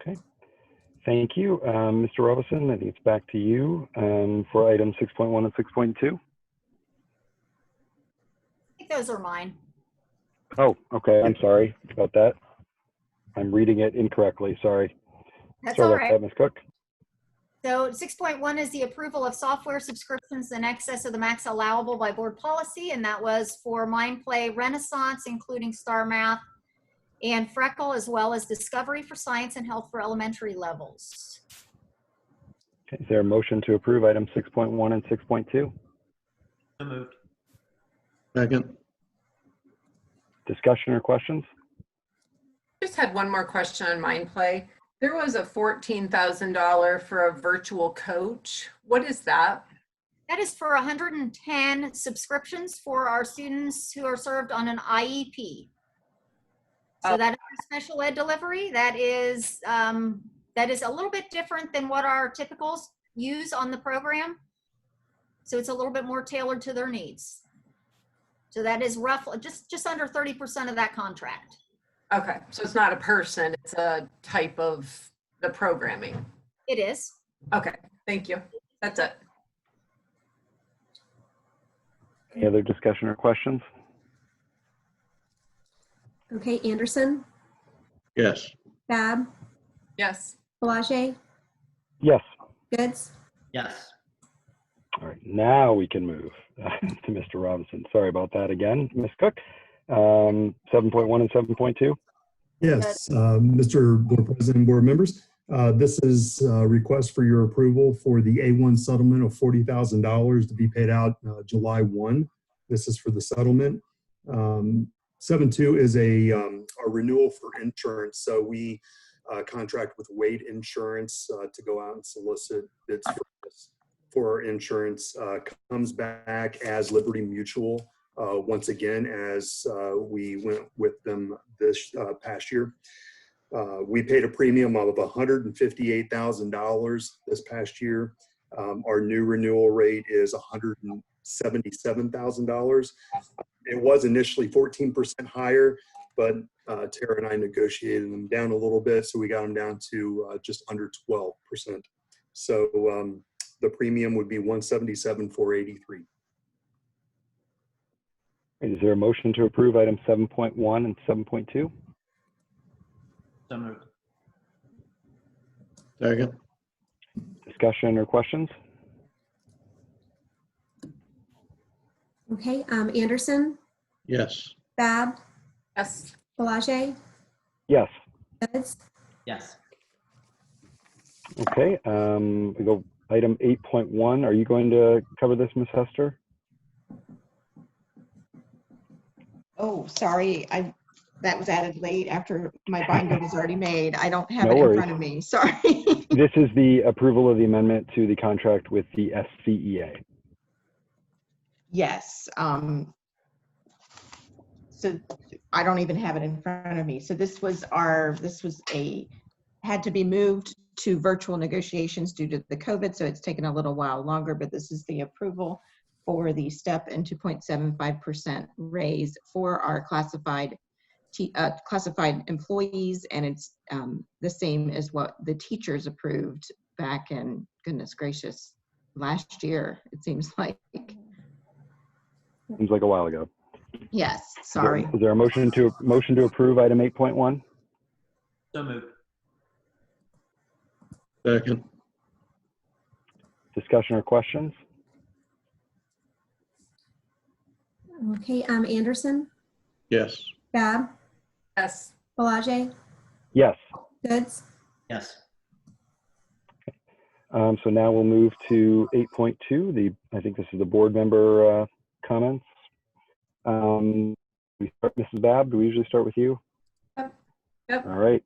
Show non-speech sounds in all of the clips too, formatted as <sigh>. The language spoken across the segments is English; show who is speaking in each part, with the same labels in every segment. Speaker 1: Okay. Thank you. Um, Mr. Robison, I think it's back to you um, for items 6.1 and 6.2.
Speaker 2: I think those are mine.
Speaker 1: Oh, okay. I'm sorry about that. I'm reading it incorrectly. Sorry.
Speaker 2: That's
Speaker 1: sorry
Speaker 2: all
Speaker 1: about
Speaker 2: right.
Speaker 1: that, Ms. Cook.
Speaker 2: So 6.1 is the approval of software subscriptions in excess of the max allowable by board policy, and that was for Mind Play Renaissance, including Star Math and Freckle, as well as Discovery for Science and Health for elementary levels.
Speaker 1: Is there a motion to approve items 6.1 and 6.2?
Speaker 3: So moved.
Speaker 4: Second.
Speaker 1: Discussion or questions?
Speaker 5: Just had one more question on Mind Play. There was a fourteen thousand dollar for a virtual coach. What is that?
Speaker 2: That is for 110 subscriptions for our students who are served on an IEP. So
Speaker 5: Oh.
Speaker 2: that is a special ed delivery. That is um, that is a little bit different than what our typicals use on the program. So it's a little bit more tailored to their needs. So that is roughly just just under 30% of that contract.
Speaker 5: Okay, so it's not a person, it's a type of the programming.
Speaker 2: It is.
Speaker 5: Okay, thank you. That's it.
Speaker 1: Any other discussion or questions?
Speaker 6: Okay, Anderson,
Speaker 4: Yes.
Speaker 6: Bab,
Speaker 5: Yes.
Speaker 6: Belage,
Speaker 1: Yes.
Speaker 6: Goods,
Speaker 3: Yes.
Speaker 1: All right. Now we can move <laughs> to Mr. Robinson. Sorry about that again, Ms. Cook. Um, 7.1 and 7.2.
Speaker 7: Yes, uh, Mr. Board President, and board members, uh, this is a request for your approval for the A1 settlement of $40,000 to be paid out uh, July 1. This is for the settlement. Um, 7.2 is a um, a renewal for insurance, so we uh, contract with Wade Insurance uh, to go out and solicit bids for this. For our insurance, uh, comes back as Liberty Mutual uh, once again as uh, we went with them this uh, past year. Uh, we paid a premium of $158,000 this past year. Um, our new renewal rate is $177,000. It was initially 14% higher, but uh, Tara and I negotiated them down a little bit, so we got them down to uh, just under 12%. So um, the premium would be 177,483.
Speaker 1: Is there a motion to approve items 7.1 and 7.2?
Speaker 3: So moved.
Speaker 4: Second.
Speaker 1: Discussion or questions?
Speaker 6: okay, um, Anderson,
Speaker 4: Yes.
Speaker 6: Bab,
Speaker 5: Yes.
Speaker 6: Belage,
Speaker 1: Yes.
Speaker 6: Goods,
Speaker 3: Yes.
Speaker 1: Okay, um, we go item eight point one. Are you going to cover this, Ms. Hester?
Speaker 8: Oh, sorry, I, that was added late after my binder was already made. I don't have
Speaker 1: No
Speaker 8: it
Speaker 1: worries.
Speaker 8: in front of me, <laughs> sorry.
Speaker 1: This is the approval of the amendment to the contract with the E SCEA.
Speaker 8: Yes, um, so I don't even have it in front of me. So this was our, this was a, had to be moved to virtual negotiations due to the COVID, so it's taken a little while longer, but this is the approval for the step and 2.75% raise for our classified, te- uh, classified employees, and it's um, the same as what the teachers approved back in, goodness gracious, last year, it seems <laughs> like.
Speaker 1: Seems like a while ago.
Speaker 8: Yes,
Speaker 1: Is there-
Speaker 8: sorry.
Speaker 1: Is there a motion to, motion to approve item eight point one?
Speaker 3: So moved.
Speaker 4: Second.
Speaker 1: Discussion or questions?
Speaker 6: okay, um, Anderson,
Speaker 4: Yes.
Speaker 6: Bab,
Speaker 5: Yes.
Speaker 6: Belage,
Speaker 1: Yes.
Speaker 6: Goods,
Speaker 3: Yes.
Speaker 1: Um, so now we'll move to eight point two, the, I think this is the board member, uh, comments. Um, we start, Mrs. Babb, do we usually start with you?
Speaker 5: Yep. Yep.
Speaker 1: All right,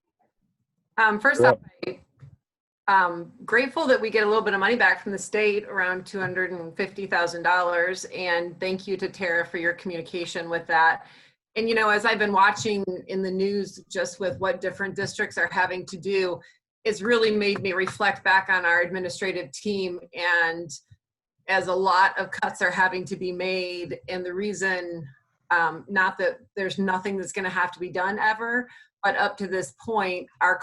Speaker 5: Um, first
Speaker 1: You're
Speaker 5: off, I, um, grateful that we get a little bit of money back from the state, around two hundred and fifty thousand dollars, and thank you to Tara for your communication with that. And you know, as I've been watching in the news, just with what different districts are having to do, it's really made me reflect back on our administrative team and as a lot of cuts are having to be made, and the reason, um, not that there's nothing that's gonna have to be done ever, but up to this point, our